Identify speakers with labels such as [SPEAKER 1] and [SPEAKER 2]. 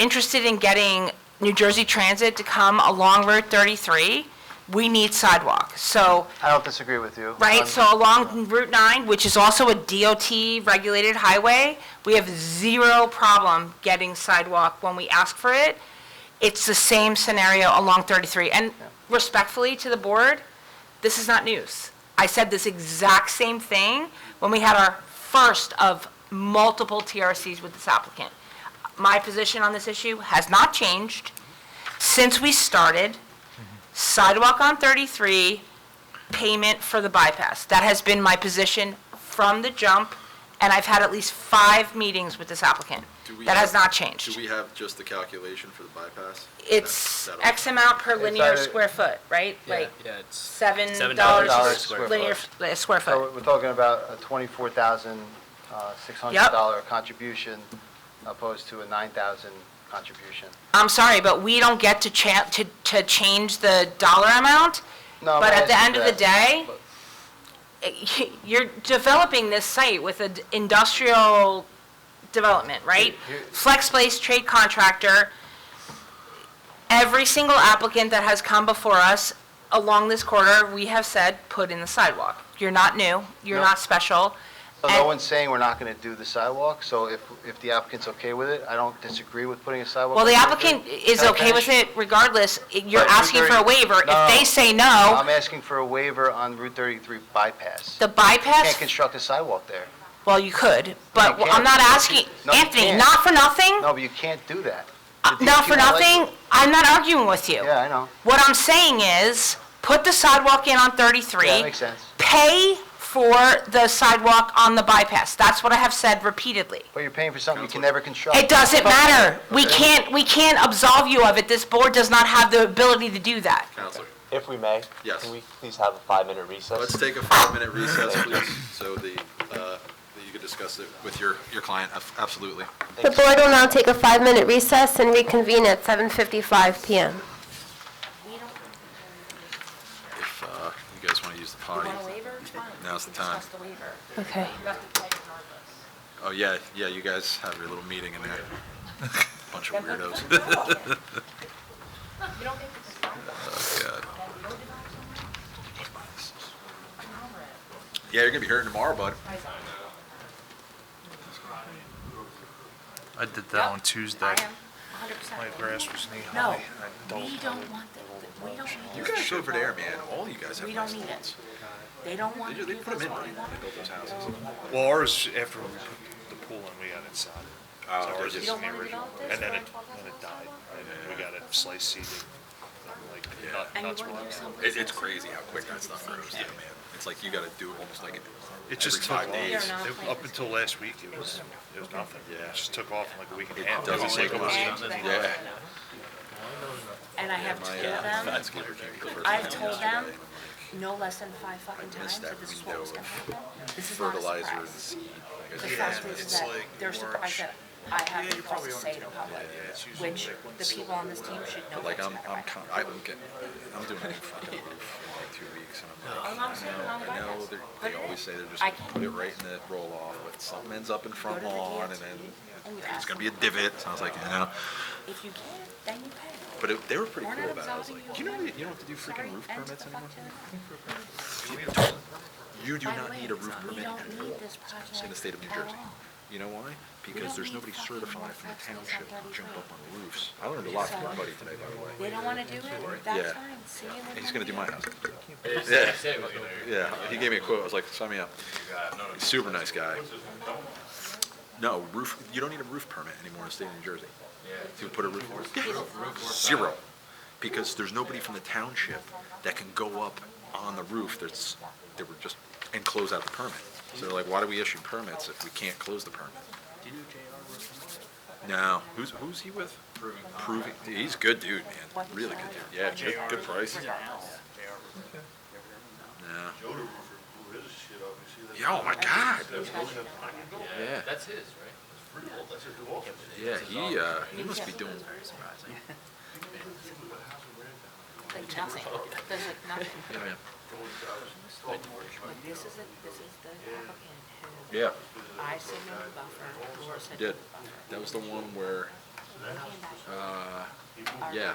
[SPEAKER 1] interested in getting New Jersey Transit to come along Route 33, we need sidewalk. So,
[SPEAKER 2] I don't disagree with you.
[SPEAKER 1] right,
[SPEAKER 2] Um,
[SPEAKER 1] so along Route 9, which is also a DOT-regulated highway, we have zero problem getting sidewalk when we ask for it. It's the same scenario along 33. And respectfully to the board, this is not news. I said this exact same thing when we had our first of multiple TRCs with this applicant. My position on this issue has not changed since we started. Sidewalk on 33, payment for the bypass. That has been my position from the jump, and I've had at least five meetings with this applicant.
[SPEAKER 3] Do we
[SPEAKER 1] That has
[SPEAKER 3] have-
[SPEAKER 1] not changed.
[SPEAKER 3] Do we have just the calculation for the bypass?
[SPEAKER 1] It's
[SPEAKER 3] That- that'll-
[SPEAKER 1] X amount per linear
[SPEAKER 2] either-
[SPEAKER 1] square foot, right? Like
[SPEAKER 4] Yeah, it's
[SPEAKER 1] seven
[SPEAKER 4] Seven
[SPEAKER 1] dollars
[SPEAKER 2] dollars
[SPEAKER 1] a
[SPEAKER 2] a square
[SPEAKER 1] square linear,
[SPEAKER 4] foot.
[SPEAKER 1] f- uh, square
[SPEAKER 2] So
[SPEAKER 1] foot.
[SPEAKER 2] we're talking about a twenty-four thousand, uh, six hundred dollar contribution opposed to a nine thousand contribution.
[SPEAKER 1] I'm sorry, but we don't get to cha, to, to change the dollar amount,
[SPEAKER 2] No, I'm
[SPEAKER 1] but
[SPEAKER 2] not
[SPEAKER 1] at the
[SPEAKER 2] asking
[SPEAKER 1] end of
[SPEAKER 2] for
[SPEAKER 1] the
[SPEAKER 2] that.
[SPEAKER 1] day,
[SPEAKER 2] But-
[SPEAKER 1] eh, you're developing this site with an industrial development, right?
[SPEAKER 2] Here- here-
[SPEAKER 1] Flex Place trade contractor, every single applicant that has come before us along this corridor, we have said, put in the sidewalk. You're not new, you're
[SPEAKER 2] No.
[SPEAKER 1] not special.
[SPEAKER 2] So no
[SPEAKER 1] and-
[SPEAKER 2] one's saying we're not gonna do the sidewalk, so if, if the applicant's okay with it, I don't disagree with putting a sidewalk.
[SPEAKER 1] Well, the
[SPEAKER 2] on there.
[SPEAKER 1] applicant is
[SPEAKER 2] Can I
[SPEAKER 1] okay with
[SPEAKER 2] finish?
[SPEAKER 1] it regardless. You're
[SPEAKER 2] But you're
[SPEAKER 1] asking for a
[SPEAKER 2] very-
[SPEAKER 1] waiver. If they
[SPEAKER 2] No.
[SPEAKER 1] say no,
[SPEAKER 2] I'm asking for a waiver on Route thirty-three bypass.
[SPEAKER 1] the
[SPEAKER 2] Can't
[SPEAKER 1] bypass,
[SPEAKER 2] construct a sidewalk there.
[SPEAKER 1] well, you could, but
[SPEAKER 2] You
[SPEAKER 1] I'm
[SPEAKER 2] can't.
[SPEAKER 1] not asking,
[SPEAKER 2] No, you
[SPEAKER 1] Anthony,
[SPEAKER 2] can't.
[SPEAKER 1] not for nothing,
[SPEAKER 2] No, but you can't do that. The
[SPEAKER 1] not
[SPEAKER 2] DOT
[SPEAKER 1] for
[SPEAKER 2] won't let you.
[SPEAKER 1] nothing, I'm not arguing with you.
[SPEAKER 2] Yeah, I know.
[SPEAKER 1] What I'm saying is, put the sidewalk in on
[SPEAKER 2] Yeah,
[SPEAKER 1] 33,
[SPEAKER 2] that makes sense.
[SPEAKER 1] pay for the sidewalk on the bypass. That's what I have said repeatedly.
[SPEAKER 2] But you're paying for something you can never construct.
[SPEAKER 1] It doesn't matter. We can't, we can't absolve you of it. This board does not have the ability to do that.
[SPEAKER 3] Counselor,
[SPEAKER 5] If we may?
[SPEAKER 3] Yes.
[SPEAKER 5] Can we please have a five-minute recess?
[SPEAKER 3] let's take a five-minute recess, please, so the, uh, that you can discuss it with your, your client, Ab- absolutely.
[SPEAKER 6] The board will now take a five-minute recess and reconvene at 7:55 PM.
[SPEAKER 3] If uh, you guys want to use the potty, now's the time.
[SPEAKER 6] Okay.
[SPEAKER 3] Oh, yeah, yeah, you guys have your little meeting in there. Bunch of weirdos. Oh, God. Yeah, you're gonna be hurting tomorrow, bud.
[SPEAKER 7] I did that on Tuesday. My grass was knee high. No,
[SPEAKER 8] We don't want that, we don't
[SPEAKER 3] You
[SPEAKER 8] need it,
[SPEAKER 3] guys over there, man, all you guys have
[SPEAKER 8] we
[SPEAKER 3] nice
[SPEAKER 8] don't need it.
[SPEAKER 3] lawns.
[SPEAKER 8] They don't want
[SPEAKER 3] They
[SPEAKER 8] to
[SPEAKER 3] ju- they
[SPEAKER 8] give
[SPEAKER 3] put 'em
[SPEAKER 8] us
[SPEAKER 3] in,
[SPEAKER 8] what
[SPEAKER 3] right?
[SPEAKER 8] we want.
[SPEAKER 3] They built those houses.
[SPEAKER 7] Well, ours, after we put the pool in, we got inside. So
[SPEAKER 3] they're
[SPEAKER 7] ours
[SPEAKER 3] Oh, just-
[SPEAKER 7] is
[SPEAKER 3] You don't
[SPEAKER 7] in the original, and then it, then it died, and then we got it sliced seeded, and like nut-
[SPEAKER 8] And you
[SPEAKER 7] nuts were
[SPEAKER 8] want to
[SPEAKER 7] on
[SPEAKER 8] give
[SPEAKER 7] it.
[SPEAKER 8] someplace.
[SPEAKER 3] It, it's crazy how quick that stuff grows, yeah, man. It's like you gotta do it almost like
[SPEAKER 7] It
[SPEAKER 3] it every
[SPEAKER 7] just took off,
[SPEAKER 3] five days.
[SPEAKER 7] It- up until last week, it was, it was nothing, it just took off in like a week and a
[SPEAKER 3] It
[SPEAKER 7] half.
[SPEAKER 3] doesn't
[SPEAKER 7] was
[SPEAKER 3] take
[SPEAKER 7] like
[SPEAKER 3] a
[SPEAKER 7] it
[SPEAKER 3] week.
[SPEAKER 7] was-
[SPEAKER 3] Yeah. uh,
[SPEAKER 8] And I have told them, I've told them no less than five fucking times
[SPEAKER 3] missed
[SPEAKER 8] that
[SPEAKER 3] that
[SPEAKER 8] this is what
[SPEAKER 3] window
[SPEAKER 8] was gonna
[SPEAKER 3] of
[SPEAKER 8] happen. This is not a
[SPEAKER 3] Fertilizer and
[SPEAKER 8] surprise.
[SPEAKER 3] seed.
[SPEAKER 8] The
[SPEAKER 3] I guess
[SPEAKER 8] fact
[SPEAKER 3] it's-
[SPEAKER 8] is that they're surprised that I have the balls to say it in public, which the people on this team should know.
[SPEAKER 3] Like
[SPEAKER 8] that's
[SPEAKER 3] I'm,
[SPEAKER 8] not
[SPEAKER 3] I'm,
[SPEAKER 8] right.
[SPEAKER 3] con- I'm getting, I'm doing a new fucking roof in like two weeks and I'm like,
[SPEAKER 8] I'm not saying I'm
[SPEAKER 3] I know,
[SPEAKER 8] biased.
[SPEAKER 3] they're-
[SPEAKER 8] Put
[SPEAKER 3] they
[SPEAKER 8] it in.
[SPEAKER 3] always say they're just
[SPEAKER 8] Oh, I
[SPEAKER 3] gonna put it right in the roll off, but something ends up in front
[SPEAKER 8] Go to the
[SPEAKER 3] lawn and
[SPEAKER 8] DOT
[SPEAKER 3] then
[SPEAKER 8] and you
[SPEAKER 3] it's
[SPEAKER 8] ask
[SPEAKER 3] gonna be a
[SPEAKER 8] them.
[SPEAKER 3] divot. So I was like, you know,
[SPEAKER 8] If you can, then you pay.
[SPEAKER 3] but it- they were pretty
[SPEAKER 8] We're
[SPEAKER 3] cool
[SPEAKER 8] not
[SPEAKER 3] about it. I was
[SPEAKER 8] absolving
[SPEAKER 3] like,
[SPEAKER 8] you
[SPEAKER 3] you know,
[SPEAKER 8] of
[SPEAKER 3] you don't have to do freaking roof
[SPEAKER 8] And to
[SPEAKER 3] permits
[SPEAKER 8] the
[SPEAKER 3] anymore.
[SPEAKER 8] fuck to the-
[SPEAKER 3] You do
[SPEAKER 8] By the
[SPEAKER 3] not
[SPEAKER 8] way,
[SPEAKER 3] need a roof
[SPEAKER 8] we
[SPEAKER 3] permit
[SPEAKER 8] don't
[SPEAKER 3] anymore
[SPEAKER 8] need this
[SPEAKER 3] in the
[SPEAKER 8] project
[SPEAKER 3] state of New
[SPEAKER 8] at
[SPEAKER 3] Jersey.
[SPEAKER 8] all.
[SPEAKER 3] You know why? Because
[SPEAKER 8] don't
[SPEAKER 3] there's
[SPEAKER 8] need
[SPEAKER 3] nobody
[SPEAKER 8] fucking
[SPEAKER 3] certified from the
[SPEAKER 8] more flex
[SPEAKER 3] township
[SPEAKER 8] than
[SPEAKER 3] to jump
[SPEAKER 8] 33.
[SPEAKER 3] up on roofs. I learned a lot from my buddy today, by the way.
[SPEAKER 8] They don't want to do it,
[SPEAKER 3] Yeah.
[SPEAKER 8] that's fine, see you in the.
[SPEAKER 3] And he's gonna do
[SPEAKER 8] morning.
[SPEAKER 3] my house. Yeah, yeah. He gave me a quote. I was like, sign me up. Super nice guy. No roof. You don't need a roof permit anymore in the state of New Jersey. To put a roof. Zero, because there's nobody from the township that can go up on the roof. That's they were just and close out the permit. So they're like, why do we issue permits if we can't close the permit? No. Who's who's he with? Proving. Proving. He's a good dude, man. Really good dude. Yeah, good, good price. No. Yeah, oh my God. Yeah. That's his, right? Yeah, he, uh, he must be doing,
[SPEAKER 8] Like nothing, there's like nothing.
[SPEAKER 3] yeah, man.
[SPEAKER 8] Like, This is, it. this is the applicant
[SPEAKER 3] yeah,
[SPEAKER 8] who I said no to buffer, Laura said
[SPEAKER 3] he
[SPEAKER 8] no
[SPEAKER 3] did.
[SPEAKER 8] to buffer.
[SPEAKER 3] That was the one where
[SPEAKER 8] Yeah,